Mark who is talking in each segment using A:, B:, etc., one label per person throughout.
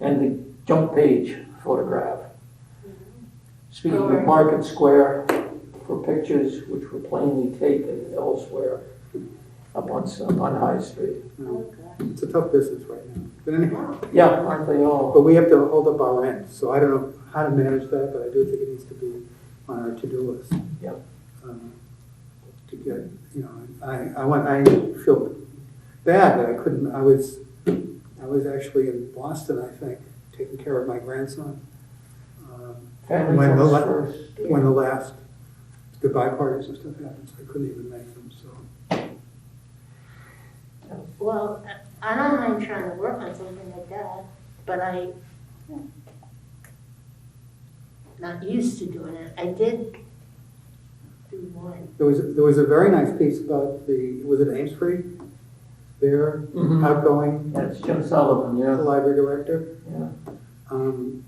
A: and the jump page photograph. Speaking of Market Square, for pictures which were plainly taken elsewhere up on, up on High Street.
B: It's a tough business right now. But anyhow,
A: Yeah, aren't they all?
B: but we have to hold up our end, so I don't know how to manage that, but I do think it needs to be on our to-do list.
A: Yeah.
B: Um, To get, you know, I, I want, I feel bad that I couldn't, I was, I was actually in Boston, I think, taking care of my grandson. um,
A: Family
B: When the
A: comes
B: la-
A: first.
B: When the last goodbye parties and stuff happened, so I couldn't even make them, so.
C: Well, I I don't mind trying to work on something like that, but I, not used to doing it. I did do one.
B: There was, there was a very nice piece about the, was it Amesbury? There,
A: Mhm.
B: outgoing
A: That's Jim Sullivan,
B: the
A: yeah,
B: library director.
A: yeah.
B: Um,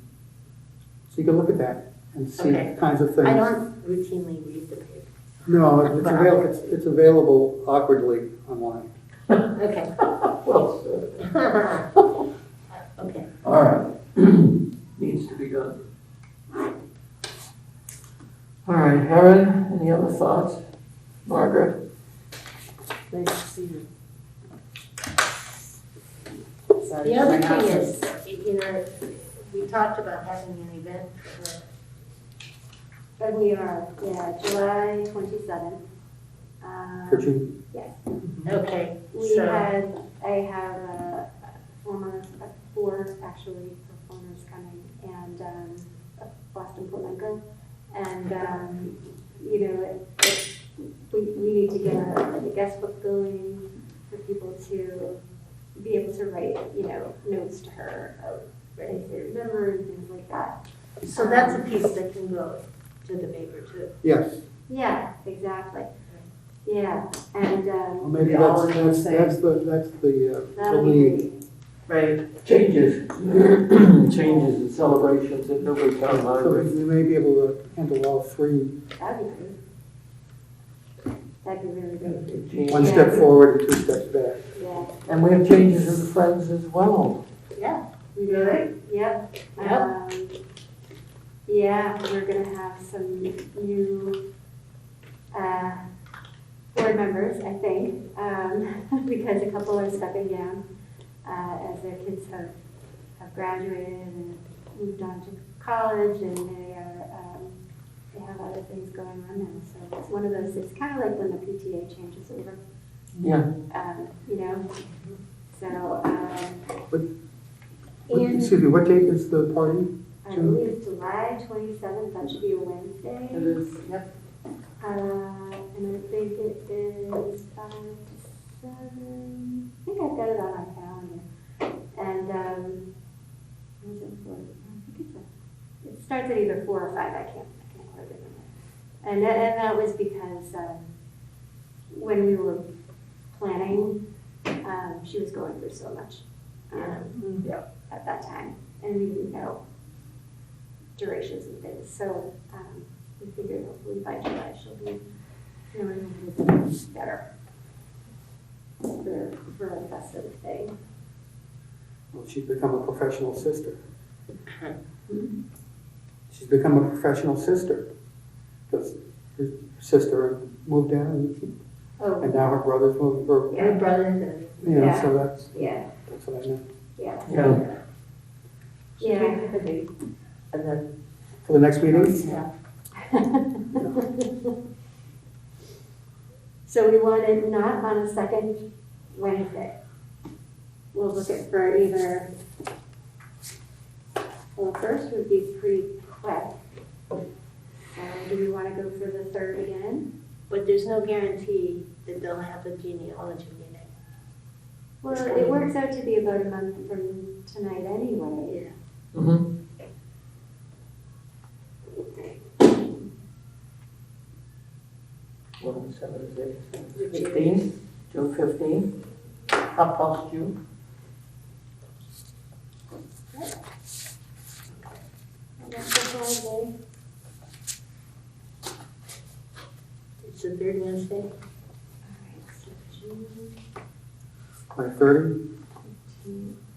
B: So you can look at that and see
C: Okay.
B: kinds of
C: I
B: things.
C: don't routinely read the paper.
B: No, it's avail, it's, it's available awkwardly online.
C: Okay.
A: Well said.
C: Okay.
A: All right. Needs to be done. All right, Erin, any other thoughts? Margaret?
D: Nice to see you.
C: The other thing is, you know, we talked about having an event for
E: But we are, yeah, July twenty-seventh. Um,
B: Could you,
E: Yes,
C: Okay,
E: we
C: So-
E: had, I have a a former, a four actually performers coming and, um, a Boston Portland girl. And, um, you know, it, it, we, we need to get a, like a guest book going for people to be able to write, you know, notes to her of things they remember and things like that.
C: so that's a piece that can go to the paper too.
B: yes,
E: Yeah, exactly. Yeah, and, um,
B: well, maybe
D: They all
B: that's,
D: are the
B: that's,
D: same.
B: that's the, that's the, uh, the
E: That'll be
B: lead.
E: great.
D: Right,
A: Changes, changes and celebrations at Newbury Town
B: So
A: Library.
B: we may be able to handle all three,
E: That'd be great. That'd be really great,
B: one
A: Change-
E: Yeah.
B: step forward and two steps back.
E: yeah.
A: And we have changes in Friends as well.
E: We
C: You all right?
E: Yep.
C: Yep.
E: Um, Yeah, we're gonna have some new, uh, board members, I think, um, because a couple are stepping down, uh, as their kids have, have graduated and moved on to college and they are, um, they have other things going on now, so it's one of those, it's kind of like when the PTA changes over.
A: Yeah.
E: Um, you know, so,
B: But-
E: um,
B: What-
E: and-
B: Excuse me, what date is the party?
E: I believe it's July twenty-seventh, that should be a Wednesday.
D: it is, yep,
E: Uh, and I think it is five to seven, I think I've got it on my calendar. And, um, what is it for? I think it's a, it starts at either four or five, I can't, I can't quite remember. And that, and that was because, um, when we were planning, um, she was going through so much. um,
C: Yeah.
D: Mm-hmm.
E: At that time, and we didn't know durations and things, so, um, we figured hopefully by July she'll be feeling a little bit better. For, for a festive thing.
B: Well, she's become a professional sister. She's become a professional sister. Because her sister moved down and
E: Oh,
B: And now her brother's moving, or,
C: My brothers and
B: you know,
E: Yeah.
B: so that's,
E: yeah,
B: that's what I meant.
E: yeah,
A: Yeah.
D: should we
E: yeah.
D: do the date? And then,
B: For the next meeting,
D: yeah,
E: So we want it not on a second Wednesday. We'll look at for either, well, the first would be pretty quick. So do we want to go for the third again?
C: But there's no guarantee that they'll have a genealogy meeting.
E: Well, it works out to be about a month from tonight anyway.
C: Yeah.
A: Mhm. What is that, is it?
C: Which is-
A: Fifteen, June fifteen, half past June.
E: That's a holiday.
C: It's the third Wednesday.
E: All right, so June
B: by thirty,
E: fifteenth.